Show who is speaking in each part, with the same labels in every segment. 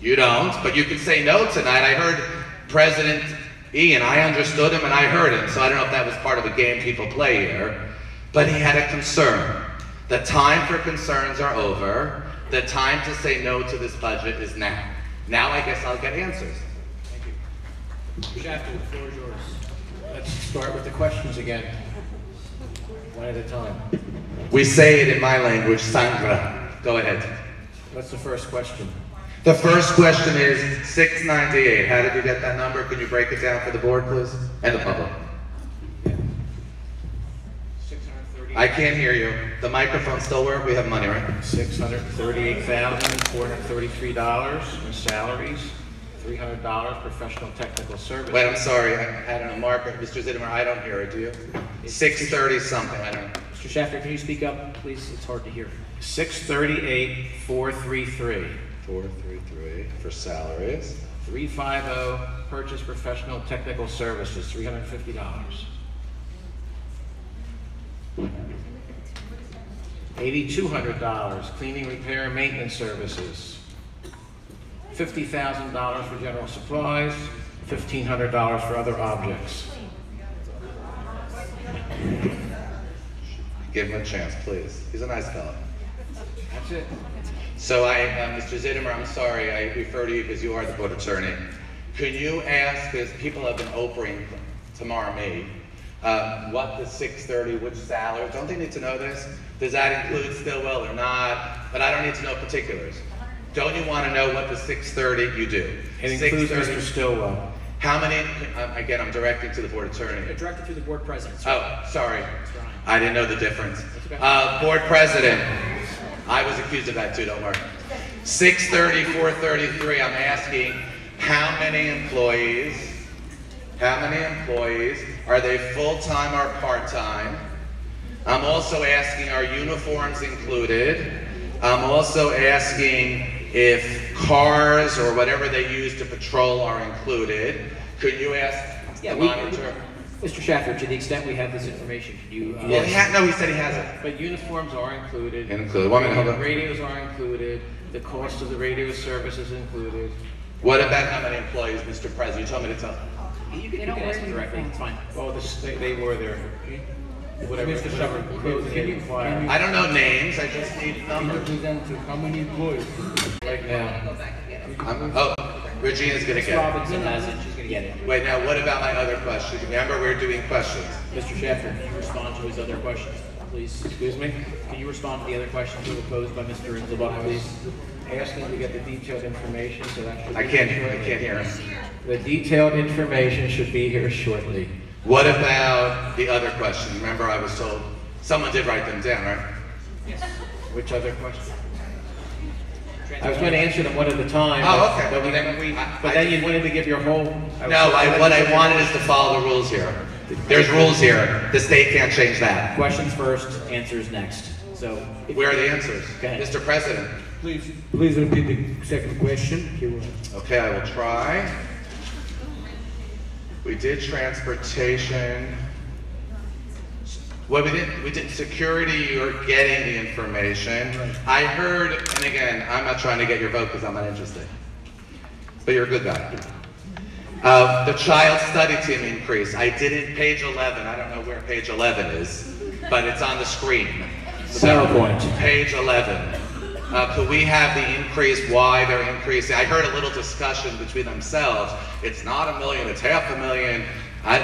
Speaker 1: You don't, but you can say no tonight. I heard President Ian. I understood him and I heard him, so I don't know if that was part of a game people play here. But he had a concern. The time for concerns are over. The time to say no to this budget is now. Now I guess I'll get answers.
Speaker 2: Shafter, the floor is yours. Let's start with the questions again. One at a time.
Speaker 1: We say it in my language, Sangra. Go ahead.
Speaker 2: What's the first question?
Speaker 1: The first question is 698. How did you get that number? Can you break it down for the board, please? And the public. I can't hear you. The microphone still work? We have money, right?
Speaker 2: Six hundred thirty-eight thousand, four hundred thirty-three dollars in salaries, three hundred dollars professional technical services.
Speaker 1: Wait, I'm sorry. I, I don't know. Mark, Mr. Zittimer, I don't hear it. Do you? 630 something. I don't know.
Speaker 3: Mr. Shafter, can you speak up, please? It's hard to hear.
Speaker 2: Six thirty-eight, four three three.
Speaker 1: 433 for salaries.
Speaker 2: 350, purchase professional technical services, $350. $8,200, cleaning, repair, and maintenance services. $50,000 for general supplies, $1,500 for other objects.
Speaker 1: Give him a chance, please. He's a nice fellow.
Speaker 2: That's it.
Speaker 1: So I, uh, Mr. Zittimer, I'm sorry, I refer to you because you are the board attorney. Could you ask, because people have been opering tomorrow me, uh, what the six thirty, which salary, don't they need to know this? Does that include Stillwell or not? But I don't need to know particulars. Don't you want to know what the six thirty you do?
Speaker 2: It includes
Speaker 1: 6:30
Speaker 2: Mr. Stillwell.
Speaker 1: How many, um, again, I'm directing to the board attorney.
Speaker 3: Directed through the board president, sir.
Speaker 1: Oh, sorry.
Speaker 3: Ryan.
Speaker 1: I didn't know the difference. Uh, board president, I was accused of that too, don't worry. 630, 433, I'm asking, how many employees, how many employees, are they full-time or part-time? I'm also asking, are uniforms included? I'm also asking if cars or whatever they use to patrol are included. Could you ask
Speaker 3: Yeah,
Speaker 1: the
Speaker 3: we,
Speaker 1: monitor?
Speaker 3: Mr. Shafter, to the extent we have this information, could you, uh,
Speaker 1: Well, he ha- no, he said he hasn't.
Speaker 2: But uniforms are included.
Speaker 1: Included. One minute, hold on.
Speaker 2: Radios are included, the cost of the radio service is included.
Speaker 1: What about how many employees, Mr. President? You told me to tell.
Speaker 3: you can, you
Speaker 4: They
Speaker 3: can
Speaker 4: don't
Speaker 3: ask
Speaker 4: wear
Speaker 3: him directly,
Speaker 4: uniforms.
Speaker 3: it's fine.
Speaker 2: Oh, this, they, they were there. Whatever,
Speaker 5: Mr.
Speaker 2: whatever
Speaker 5: Shepherd,
Speaker 2: clothes
Speaker 5: can
Speaker 2: they
Speaker 5: you-
Speaker 2: require.
Speaker 1: I don't know names, I just need numbers.
Speaker 5: Representative, how many employees?
Speaker 2: Right now,
Speaker 1: I'm, oh, Regina's gonna get
Speaker 3: Robinson has it, she's gonna get it.
Speaker 1: it. Wait, now what about my other question? Remember, we're doing questions.
Speaker 3: Mr. Shafter, can you respond to his other questions, please?
Speaker 2: excuse me,
Speaker 3: Can you respond to the other questions that were posed by Mr. Rizabod, please?
Speaker 2: asking to get the detailed information, so that should.
Speaker 1: I
Speaker 2: be
Speaker 1: can't,
Speaker 2: here
Speaker 1: I
Speaker 2: shortly.
Speaker 1: can't hear him.
Speaker 2: The detailed information should be here shortly.
Speaker 1: What about the other question? Remember, I was told, someone did write them down, right?
Speaker 2: Which other question? I was gonna answer them one at a time.
Speaker 1: Oh, okay.
Speaker 2: But we,
Speaker 1: Then we-
Speaker 2: but then you wanted to give your whole.
Speaker 1: No, I, what I wanted is to follow the rules here. There's rules here, the state can't change that.
Speaker 3: Questions first, answers next. So, if-
Speaker 1: Where are the answers?
Speaker 3: Go ahead.
Speaker 1: Mr. President?
Speaker 5: Please, please repeat the second question. He will-
Speaker 1: Okay, I will try. We did transportation. Well, we did, we did security, you're getting the information. I heard, and again, I'm not trying to get your vote because I'm not interested. But you're a good guy. Uh, the child study team increase, I did it page 11, I don't know where page 11 is, but it's on the screen. So,
Speaker 3: PowerPoint.
Speaker 1: Page 11. Uh, could we have the increase, why they're increasing? I heard a little discussion between themselves. It's not a million, it's half a million. I,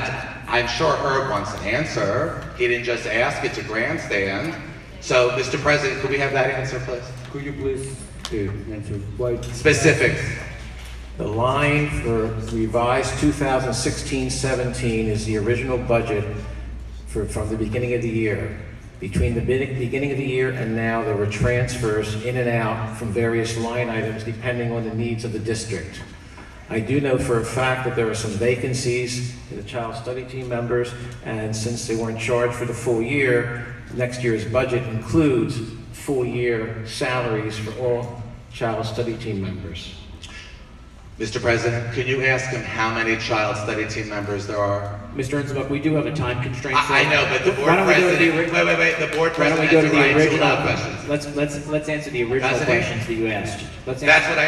Speaker 1: I'm sure Herb wants an answer. He didn't just ask, it's a grandstand. So, Mr. President, could we have that answer, please?
Speaker 5: Could you please uh, answer why?
Speaker 1: Specifics.
Speaker 2: The line for revised 2016-17 is the original budget for, from the beginning of the year. Between the be- beginning of the year and now, there were transfers in and out from various line items depending on the needs of the district. I do know for a fact that there are some vacancies in the child study team members, and since they weren't charged for the full year, next year's budget includes full-year salaries for all child study team members.
Speaker 1: Mr. President, could you ask him how many child study team members there are?
Speaker 3: Mr. Enzebub, we do have a time constraint. so-
Speaker 1: I, I know, but the
Speaker 3: Why
Speaker 1: board
Speaker 3: don't we go to the
Speaker 1: president,
Speaker 3: ori-
Speaker 1: wait, wait, wait, the board
Speaker 3: Why
Speaker 1: president
Speaker 3: don't we go
Speaker 1: has
Speaker 3: to
Speaker 1: the right
Speaker 3: the
Speaker 1: to
Speaker 3: original?
Speaker 1: allow questions.
Speaker 3: Let's, let's, let's answer the original
Speaker 1: President?
Speaker 3: questions that you asked. Let's answer.
Speaker 1: That's what I